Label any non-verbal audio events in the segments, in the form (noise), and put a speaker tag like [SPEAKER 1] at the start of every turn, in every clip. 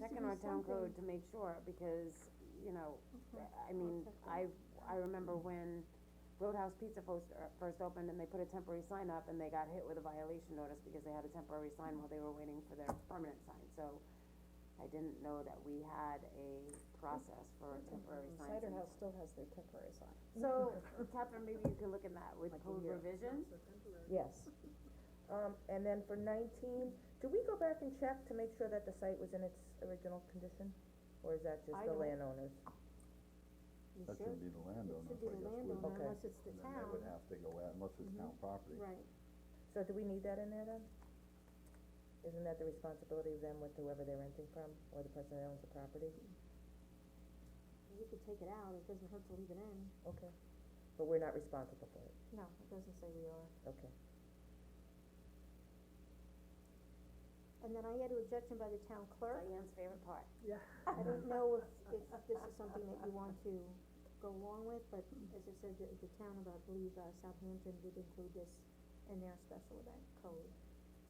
[SPEAKER 1] checking on town code to make sure, because, you know, I mean, I, I remember when Roadhouse Pizza first, er, first opened and they put a temporary sign up and they got hit with a violation notice because they had a temporary sign while they were waiting for their permanent sign, so I didn't know that we had a process for temporary signs.
[SPEAKER 2] Cider
[SPEAKER 1] in
[SPEAKER 2] House
[SPEAKER 1] town.
[SPEAKER 2] still has their temporary sign.
[SPEAKER 1] So, Catherine, maybe you can look at that with
[SPEAKER 2] Like a
[SPEAKER 1] code
[SPEAKER 2] year.
[SPEAKER 1] revision,
[SPEAKER 3] Yes. Um, and then for nineteen, do we go back and check to make sure that the site was in its original condition? Or is that just
[SPEAKER 1] I
[SPEAKER 3] the
[SPEAKER 1] don't-
[SPEAKER 3] landowners?
[SPEAKER 4] You
[SPEAKER 5] That
[SPEAKER 4] should,
[SPEAKER 5] should be the
[SPEAKER 4] it
[SPEAKER 5] landowner, I
[SPEAKER 4] should be
[SPEAKER 5] guess.
[SPEAKER 4] the
[SPEAKER 5] wouldn't
[SPEAKER 4] landowner
[SPEAKER 3] Okay.
[SPEAKER 4] unless it's the
[SPEAKER 5] it? And then they
[SPEAKER 4] town, Mm-hmm.
[SPEAKER 5] would have to go out, unless it's town property.
[SPEAKER 4] right,
[SPEAKER 3] So do we need that in there then? Isn't that the responsibility of them with whoever they're renting from, or the person that owns the property?
[SPEAKER 4] you could take it out, it doesn't hurt to leave it in,
[SPEAKER 3] Okay. But we're not responsible for it,
[SPEAKER 4] no, it doesn't say we are.
[SPEAKER 3] okay.
[SPEAKER 4] And then I had an objection by the town (laughs) clerk,
[SPEAKER 1] Diane's favorite part.
[SPEAKER 4] I don't know if, if this is something that you want to go along with, but as I said, the, the town of, I believe, uh, Southampton did include this in their special event code.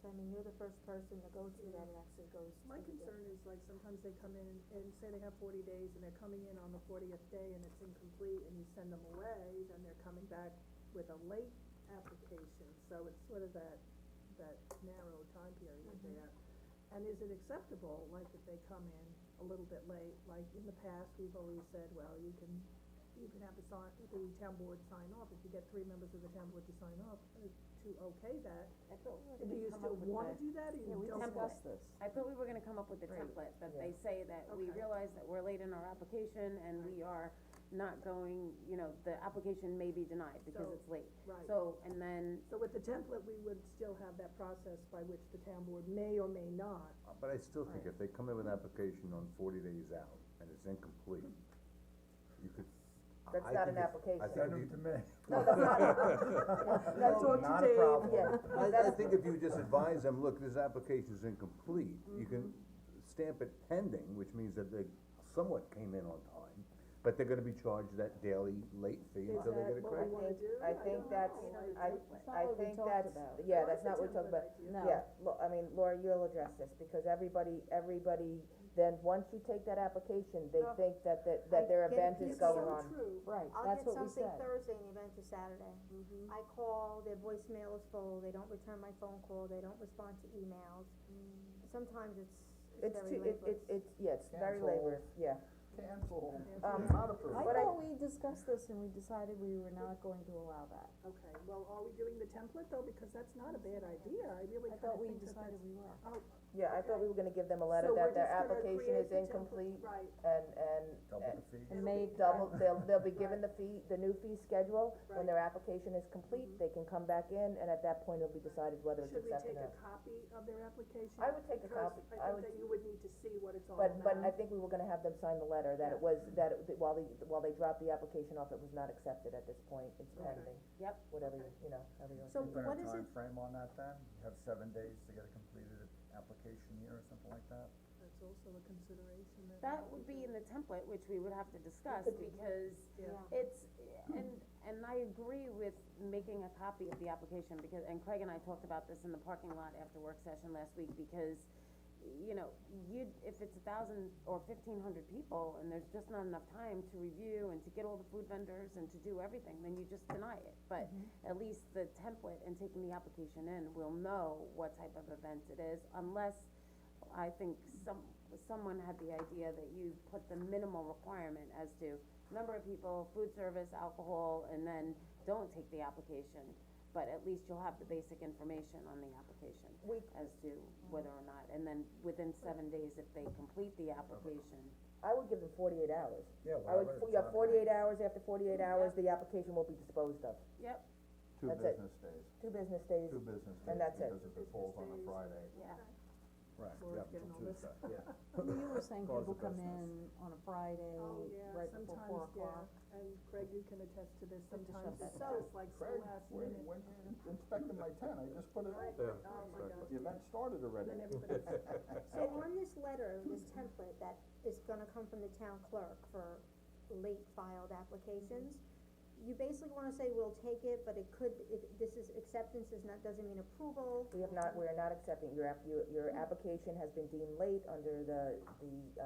[SPEAKER 4] So I mean, you're the first person to go to that, it actually goes to
[SPEAKER 6] My
[SPEAKER 4] the-
[SPEAKER 6] concern is like sometimes they come in and say they have forty days and they're coming in on the fortieth day and it's incomplete and you send them away, then they're coming back with a late application, so it's sort of that, that narrow time period
[SPEAKER 1] Mm-hmm.
[SPEAKER 6] there. And is it acceptable, like if they come in a little bit late, like in the past, we've always said, well, you can, you can have the sign, the town board sign off, if you get three members of the town board to sign off, uh, to okay that,
[SPEAKER 1] I thought we were
[SPEAKER 6] do
[SPEAKER 1] gonna
[SPEAKER 6] you
[SPEAKER 1] come
[SPEAKER 6] still
[SPEAKER 1] up with
[SPEAKER 6] wanna
[SPEAKER 1] a-
[SPEAKER 6] do that or you
[SPEAKER 2] Yeah, we
[SPEAKER 6] don't want
[SPEAKER 1] discussed
[SPEAKER 2] discussed this.
[SPEAKER 1] I thought we were gonna come up with a template, that they say that we
[SPEAKER 6] Okay.
[SPEAKER 1] realize that we're late in our application and we are not going, you know, the application may be denied because
[SPEAKER 6] So-
[SPEAKER 1] it's late.
[SPEAKER 6] Right.
[SPEAKER 1] So, and then,
[SPEAKER 6] So with the template, we would still have that process by which the town board may or may not,
[SPEAKER 5] Uh, But I still think if they come in with an application on forty days out and it's incomplete, you could. I-
[SPEAKER 3] That's
[SPEAKER 5] I
[SPEAKER 3] not
[SPEAKER 5] think
[SPEAKER 3] an
[SPEAKER 5] it's- I
[SPEAKER 3] application.
[SPEAKER 5] think you-
[SPEAKER 4] (laughs)
[SPEAKER 6] that's all to Dave.
[SPEAKER 3] Yeah,
[SPEAKER 5] I, I think if you just advise them, look, this application's incomplete, you can
[SPEAKER 4] Mm-hmm.
[SPEAKER 5] stamp it pending, which means that they somewhat came in on time, but they're gonna be charged that daily late fee
[SPEAKER 6] Is
[SPEAKER 5] until they
[SPEAKER 6] that
[SPEAKER 5] get it
[SPEAKER 6] what we
[SPEAKER 5] corrected.
[SPEAKER 6] wanna
[SPEAKER 3] think-
[SPEAKER 6] do?
[SPEAKER 3] I think
[SPEAKER 6] don't
[SPEAKER 3] that's-
[SPEAKER 6] know.
[SPEAKER 3] I,
[SPEAKER 2] It's not
[SPEAKER 3] I
[SPEAKER 2] what we
[SPEAKER 3] think
[SPEAKER 2] talked
[SPEAKER 3] that's,
[SPEAKER 2] about.
[SPEAKER 3] yeah,
[SPEAKER 6] Well,
[SPEAKER 3] that's
[SPEAKER 6] it's a
[SPEAKER 3] not what we talked
[SPEAKER 6] template
[SPEAKER 3] about,
[SPEAKER 6] idea.
[SPEAKER 2] No.
[SPEAKER 3] Yeah, Lo- I mean, Laura, you'll address this, because everybody, everybody, then, once you take that application, they
[SPEAKER 4] Oh.
[SPEAKER 3] think that, that,
[SPEAKER 4] I
[SPEAKER 3] that their
[SPEAKER 4] get
[SPEAKER 3] event
[SPEAKER 4] it.
[SPEAKER 3] is
[SPEAKER 4] It's
[SPEAKER 3] going
[SPEAKER 4] so
[SPEAKER 3] on.
[SPEAKER 6] true.
[SPEAKER 2] Right,
[SPEAKER 4] I'll
[SPEAKER 2] that's
[SPEAKER 4] get
[SPEAKER 2] what we
[SPEAKER 4] something
[SPEAKER 2] said.
[SPEAKER 4] Thursday and event to Saturday. I call, their voicemail is full, they don't return my phone call, they don't respond to emails. Sometimes it's, it's
[SPEAKER 3] It's
[SPEAKER 4] very
[SPEAKER 3] too, it,
[SPEAKER 4] laborious.
[SPEAKER 3] it, it's, yeah, it's very
[SPEAKER 7] Cancel.
[SPEAKER 3] laborious, yeah.
[SPEAKER 7] Cancel,
[SPEAKER 3] Um,
[SPEAKER 7] not approved.
[SPEAKER 2] I
[SPEAKER 3] What I-
[SPEAKER 2] thought we discussed this and we decided we were not going to allow that.
[SPEAKER 6] Okay, well, are we doing the template though, because that's not a bad idea, I really
[SPEAKER 2] I
[SPEAKER 6] kinda
[SPEAKER 2] thought we
[SPEAKER 6] think that
[SPEAKER 2] decided
[SPEAKER 6] that's.
[SPEAKER 2] we were.
[SPEAKER 6] Oh,
[SPEAKER 3] Yeah, I thought we were gonna give them a letter
[SPEAKER 6] So
[SPEAKER 3] that
[SPEAKER 6] we're
[SPEAKER 3] their
[SPEAKER 6] just gonna
[SPEAKER 3] application
[SPEAKER 6] create
[SPEAKER 3] is
[SPEAKER 6] the template,
[SPEAKER 3] incomplete
[SPEAKER 6] right.
[SPEAKER 3] and, and,
[SPEAKER 5] Double the fee.
[SPEAKER 2] And
[SPEAKER 6] It'll be
[SPEAKER 2] make,
[SPEAKER 3] double, they'll, they'll
[SPEAKER 6] (laughs)
[SPEAKER 3] be given the fee, the new fee schedule. When their application is complete, they can come back in and at that point it'll be decided whether it's
[SPEAKER 6] Mm-hmm. Should we
[SPEAKER 3] accepted or
[SPEAKER 6] take a
[SPEAKER 3] not.
[SPEAKER 6] copy of their application?
[SPEAKER 3] I would take a copy. I
[SPEAKER 6] Because I
[SPEAKER 3] would-
[SPEAKER 6] think that you would need to see what it's all
[SPEAKER 3] But,
[SPEAKER 6] about.
[SPEAKER 3] but I think we were gonna have them sign the letter that it was, that it, that while they, while they dropped the application off, it was not accepted at this point, it's
[SPEAKER 6] Okay.
[SPEAKER 3] pending.
[SPEAKER 1] Yep.
[SPEAKER 3] Whatever, you you know, however you want to.
[SPEAKER 4] So what is it,
[SPEAKER 7] Is there a timeframe on that then? You have seven days to get a completed application here or something like that?
[SPEAKER 6] That's also a consideration that.
[SPEAKER 1] that would be in the template, which we would have to discuss, because
[SPEAKER 6] Yeah.
[SPEAKER 1] it's, and, and I agree with making a copy of the application, because, and Craig and I talked about this in the parking lot after work session last week, because, you know, you, if it's a thousand or fifteen hundred people, and there's just not enough time to review and to get all the food vendors and to do everything, then you just deny it. But at least the template and taking the application in, will know what type of event it is, unless I think some, someone had the idea that you put the minimal requirement as to number of people, food service, alcohol, and then don't take the application. But at least you'll have the basic information on the application
[SPEAKER 3] We-
[SPEAKER 1] as to whether or not, and then within seven days, if they complete the application,
[SPEAKER 3] I would give them forty-eight hours.
[SPEAKER 7] Yeah,
[SPEAKER 3] I would,
[SPEAKER 7] whatever
[SPEAKER 3] you have
[SPEAKER 7] time.
[SPEAKER 3] forty-eight hours, after forty-eight hours, the application will be disposed of.
[SPEAKER 1] yep,
[SPEAKER 5] Two
[SPEAKER 3] That's it.
[SPEAKER 5] business days,
[SPEAKER 3] Two business days,
[SPEAKER 5] two business days.
[SPEAKER 3] And that's it.
[SPEAKER 5] Because if it falls on a
[SPEAKER 6] Business days.
[SPEAKER 5] Friday,
[SPEAKER 1] yeah.
[SPEAKER 5] right,
[SPEAKER 6] Well,
[SPEAKER 5] we
[SPEAKER 6] it's
[SPEAKER 5] have
[SPEAKER 6] getting
[SPEAKER 5] until
[SPEAKER 6] all this-
[SPEAKER 5] Tuesday, yeah.
[SPEAKER 2] you were saying
[SPEAKER 5] Close
[SPEAKER 2] people
[SPEAKER 5] the
[SPEAKER 2] come
[SPEAKER 5] business.
[SPEAKER 2] in on a Friday,
[SPEAKER 6] Oh, yeah,
[SPEAKER 2] um, right before four
[SPEAKER 6] sometimes,
[SPEAKER 2] o'clock.
[SPEAKER 6] yeah, and Craig, you can attest to this, sometimes
[SPEAKER 2] shut
[SPEAKER 6] it's
[SPEAKER 2] that
[SPEAKER 6] just like so
[SPEAKER 7] Craig,
[SPEAKER 6] last
[SPEAKER 7] when,
[SPEAKER 6] minute.
[SPEAKER 7] when you inspected my tent, I just put it out there.
[SPEAKER 6] Oh, my God.
[SPEAKER 7] The event started already.
[SPEAKER 6] Then everybody's.
[SPEAKER 4] so on this letter, this template that is gonna come from the town clerk for late filed applications, you basically wanna say, we'll take it, but it could, it, this is, acceptance is not, doesn't mean approval.
[SPEAKER 3] We have not, we are not accepting, your app, your, your application has been deemed late under the, the,